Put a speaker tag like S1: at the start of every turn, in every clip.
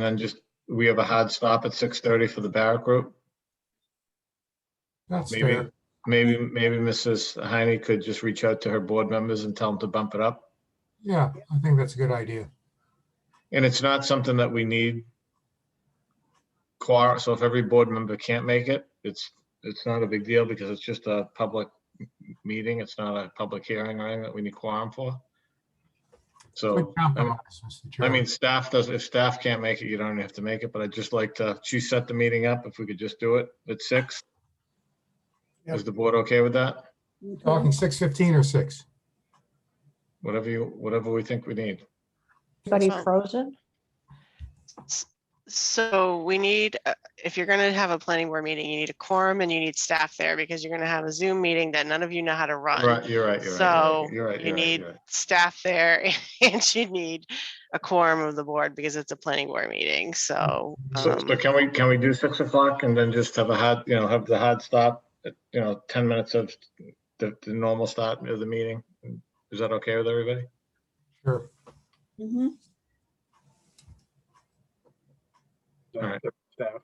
S1: And then just, we have a hard stop at six thirty for the Barrett Group.
S2: That's
S1: Maybe.
S2: fair.
S1: Maybe, maybe Mrs. Heine could just reach out to her board members and tell them to bump it up.
S2: Yeah, I think that's a good idea.
S1: And it's not something that we need. Quar, so if every board member can't make it, it's, it's not a big deal because it's just a public meeting. It's not a public hearing or anything that we need quorum for. So,
S2: Good compromise, Mr.
S1: I
S2: Chairman.
S1: mean, staff does, if staff can't make it, you don't have to make it, but I'd just like to, she set the meeting up if we could just do it at six. Is the board okay with that?
S2: Talking six fifteen or six?
S1: Whatever you, whatever we think we need.
S3: But he's
S4: Excellent.
S3: frozen?
S4: So we need, uh, if you're gonna have a planning board meeting, you need a quorum and you need staff there because you're gonna have a Zoom meeting that none of you know how to run.
S1: Right, you're right, you're
S4: So
S1: right. you're right,
S4: you
S1: you're right,
S4: need
S1: you're right.
S4: Staff there and you need a quorum of the board because it's a planning board meeting, so.
S1: Mm-hmm. So
S4: um,
S1: so can we, can we do six o'clock and then just have a hard, you know, have the hard stop, at, you know, ten minutes of the, the normal start of the meeting? Is that okay with everybody?
S2: Sure.
S5: Mm-hmm.
S3: Mhm.
S1: All right.
S6: Staff.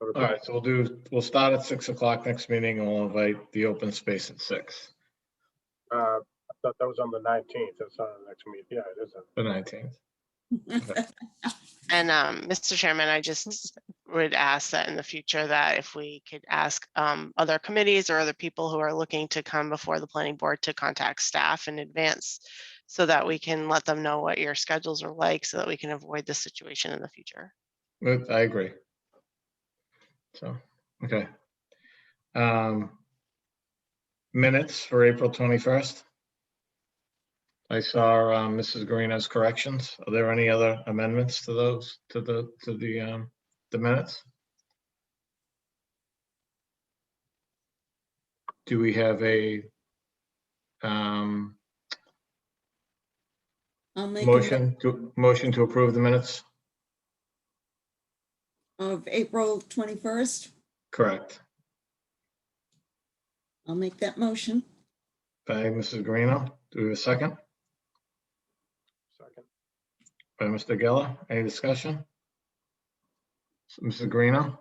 S1: All right, so we'll do, we'll start at six o'clock next meeting and we'll invite the open space at six,
S6: Uh, I thought that was on the nineteenth, that's not the next meeting, yeah, it is. on-
S1: the nineteenth.
S4: And um, Mr. Chairman, I just would ask that in the future that if we could ask um, other committees or other people who are looking to come before the planning board to contact staff in advance so that we can let them know what your schedules are like so that we can avoid this situation in the future.
S1: But I agree. So, okay. Um Minutes for April 21st. I saw um, Mrs. Garina's corrections. Are there any other amendments to those, to the, to the, um the minutes? Do we have a um
S5: I'll make a mo-
S1: motion, to motion to approve the minutes?
S5: of April 21st.
S1: Correct.
S5: I'll make that motion.
S1: By Mrs. Garino. Do we have a second?
S6: Second.
S1: By Mr. Geller, any discussion? So, Mrs. Greeno,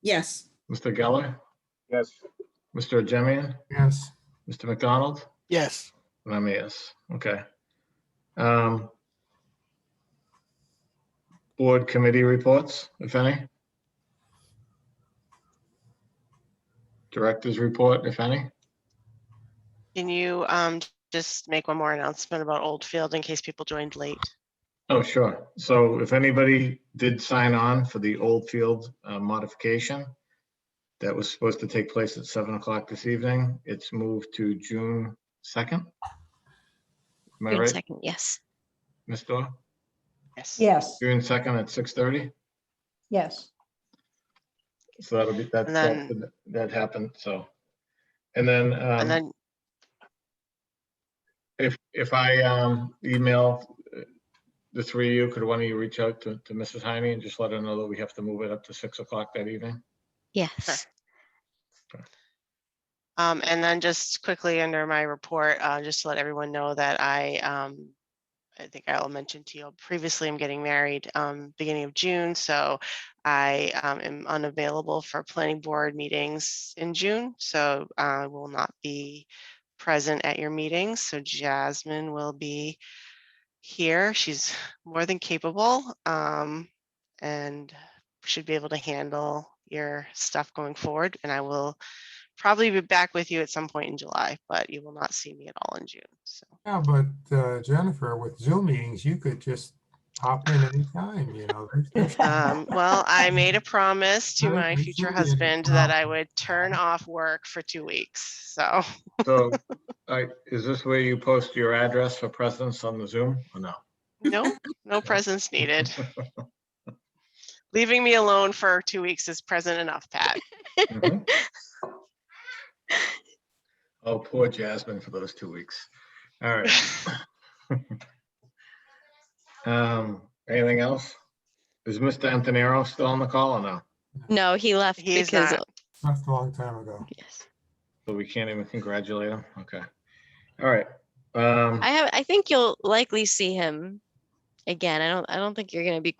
S5: Yes,
S1: Mr. Geller,
S6: Yes,
S1: Mr. Jemian,
S2: Yes,
S1: Mr. McDonald,
S7: Yes,
S1: and I'm a yes, okay. Um, Board committee reports, if any? Directors report, if any?
S4: Can you um, just make one more announcement about Oldfield in case people joined late?
S1: Oh, sure. So if anybody did sign on for the old field uh, modification that was supposed to take place at seven o'clock this evening, it's moved to June second. Am I
S8: June
S1: right,
S8: second, yes.
S1: Ms. Dorr?
S4: Yes.
S3: Yes,
S1: June second at six thirty?
S3: yes.
S1: So that'll be, that,
S4: And
S1: that- that happened, so. And then,
S4: And
S1: um,
S4: then,
S1: if, if I, um, email uh, the three of you, could one of you reach out to, to Mrs. Heine and just let her know that we have to move it up to six o'clock that evening?
S8: Yes.
S4: um, and then just quickly under my report, uh, just to let everyone know that I um, I think I'll mention to you previously, I'm getting married um beginning of June, so I um am unavailable for planning board meetings in June, so I will not be present at your meetings, so Jasmine will be here. She's more than capable um and should be able to handle your stuff going forward, and I will probably be back with you at some point in July, but you will not see me at all in June, so.
S2: yeah, but uh, Jennifer, with Zoom meetings, you could just hop in anytime, you know. There's- there's-
S4: Um, well, I made a promise to
S2: Right,
S4: my
S2: you
S4: future
S2: should be a
S4: husband that I
S2: promise.
S4: would turn off work for two weeks. So
S1: So, I, is this where you post your address for presence on the Zoom or no?
S4: no, no presents needed. Leaving me alone for two weeks is present enough, Pat.
S1: Mhm. Oh, poor Jasmine for those two weeks. All right. Um, anything else? Is Mr. Antonero still on the call or no?
S8: No, he left
S4: He is
S8: because,
S4: not.
S2: Left a long time ago.
S8: yes.
S1: So we can't even congratulate him? Okay. All right. Um,
S8: I have, I think you'll likely see him again, I don't, I don't think you're gonna be